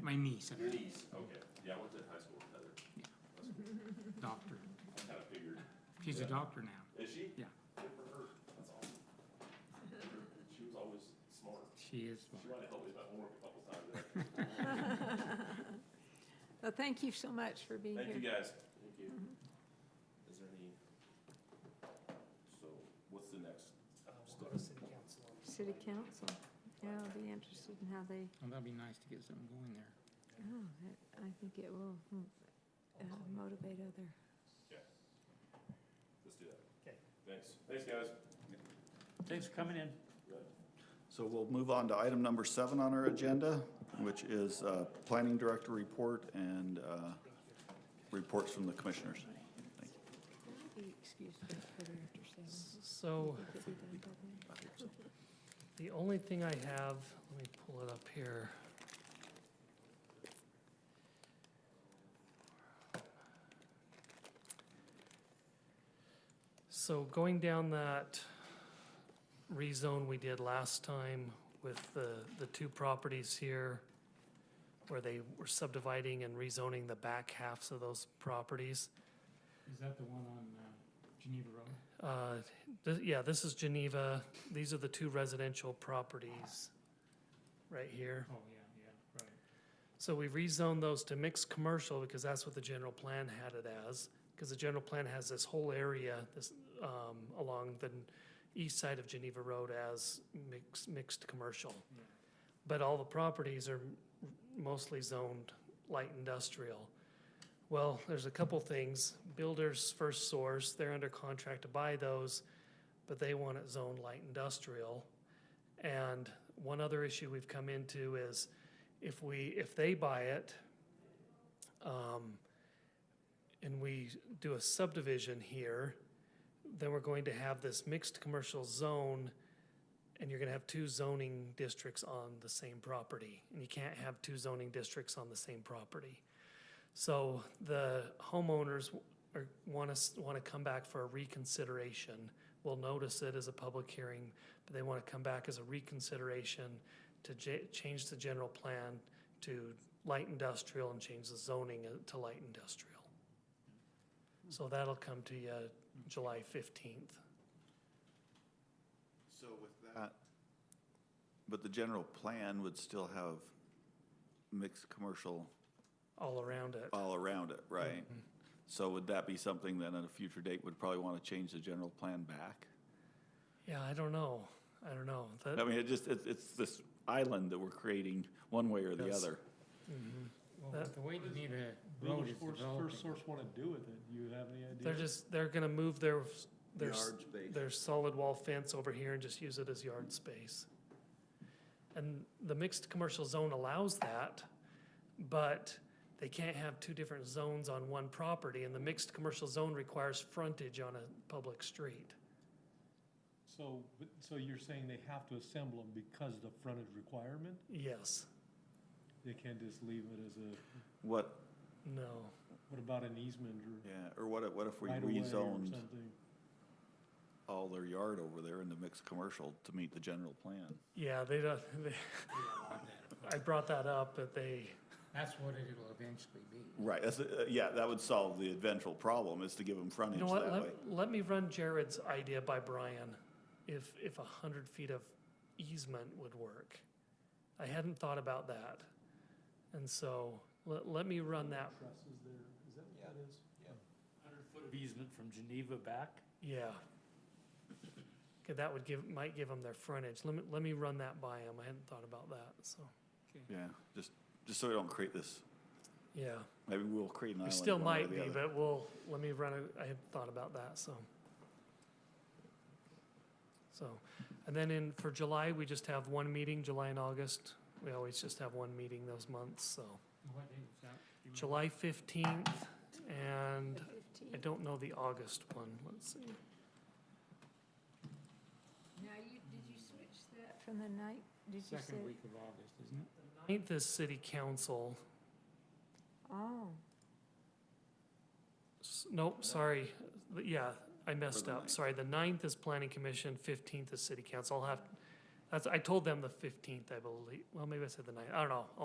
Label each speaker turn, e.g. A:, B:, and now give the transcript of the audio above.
A: my niece, and
B: Your
A: her
B: niece, okay, yeah, I went to high school with Heather. That's cool.
A: doctor.
B: I kinda figured,
A: She's a doctor now.
B: is she?
A: Yeah.
B: Good for her, that's awesome. She was always smart.
A: She is
B: She
A: smart.
B: wanted to help me with my homework a couple times.
C: Well, thank you so much for being
B: Thank
C: here. Mm-hmm.
B: you, guys. Thank you. Is there any? So, what's the next?
D: Uh, We'll go to city council. on this
C: City
D: slide.
C: council, yeah, I'll be interested in how they,
A: Well, that'd be nice to get something going there.
C: oh, that, I think it will mm, uh, motivate other.
B: Let's do that.
D: Okay.
B: Thanks. Thanks, guys.
E: Thanks for coming in.
B: Good.
F: So we'll move on to item number seven on our agenda, which is uh, Planning Director Report and uh, reports from the commissioners. Thank you.
C: Excuse me, quarter after seven.
D: So
C: Think it'd be done by then.
D: the only thing I have, let me pull it up here. So going down that rezone we did last time with the, the two properties here, where they were subdividing and rezoning the back halves of those properties.
A: Is that the one on uh, Geneva Road?
D: Uh, th- yeah, this is Geneva. These are the two residential properties right here.
A: Oh, yeah, yeah, right.
D: So we rezoned those to mixed commercial because that's what the general plan had it as. Because the general plan has this whole area, this, um, along the n- east side of Geneva Road as mixed, mixed commercial.
A: Yeah.
D: But all the properties are mostly zoned light industrial. Well, there's a couple things. Builders First Source, they're under contract to buy those, but they want it zoned light industrial. And one other issue we've come into is if we, if they buy it, um, and we do a subdivision here, then we're going to have this mixed commercial zone, and you're gonna have two zoning districts on the same property, and you can't have two zoning districts on the same property. So the homeowners w- are, wanna, s- wanna come back for a reconsideration. We'll notice it as a public hearing, but they wanna come back as a reconsideration to ja- change the general plan to light industrial and change the zoning uh, to light industrial. So that'll come to you July fifteenth.
F: So with that. But the general plan would still have mixed commercial
D: all around it.
F: all around it, right? So would that be something that at a future date would probably want to change the general plan back?
D: Yeah, I don't know. I don't know. That-
F: I mean, it just, it's, it's this island that we're creating one way or the
D: Yes.
F: other.
A: Well,
D: That-
A: with the way
G: What is-
A: Geneva Road
G: Builders
A: is
G: First,
A: developing.
G: First Source wanna do with it, you have any idea?
D: They're just, they're gonna move their, their, s-
H: Yard space.
D: their solid wall fence over here and just use it as yard space. And the mixed commercial zone allows that, but they can't have two different zones on one property, and the mixed commercial zone requires frontage on a public street.
G: So, but- so you're saying they have to assemble them because of the frontage requirement?
D: Yes,
G: They can't just leave it as a,
F: What,
D: no.
G: what about an easement or
F: yeah, or what if, what if we
G: right away or
F: rezoned
G: something?
F: all their yard over there in the mixed commercial to meet the general plan?
D: Yeah, they don't, they, I brought that up, but they,
A: That's what it'll eventually be.
F: Right, that's, uh, yeah, that would solve the eventual problem, is to give them frontage
D: You know what,
F: that
D: let,
F: way.
D: let me run Jared's idea by Brian, if, if a hundred feet of easement would work. I hadn't thought about that, and so, let, let me run that,
G: Trusses there, is that what that is?
E: Hundred foot of easement from Geneva back.
D: yeah. 'Cause that would give, might give them their frontage, let me, let me run that by him, I hadn't thought about that, so,
F: Yeah, just, just so we don't create this,
D: yeah.
F: maybe we'll create an
D: We
F: island.
D: still
F: one way or
D: might
F: the
D: be,
F: other.
D: but we'll, let me run, a- I had thought about that, so. So, and then in, for July, we just have one meeting, July and August. We always just have one meeting those months, so.
F: Mm-hmm.
A: What day was that? Do you remember?
D: July fifteenth, and
C: The
D: I
C: 15th.
D: don't know the August one, let's see. uh,
C: Now, you, did you switch that from the night, did you say?
A: Second week of August, isn't it?
D: Ninth is city council,
C: Oh,
D: S- nope, sorry, Th- yeah, I messed
F: the
D: up,
F: ninth.
D: sorry, the ninth is planning commission, fifteenth is city council, I'll have, that's, I told them the fifteenth, I believe, well, maybe I said the ninth, I don't know,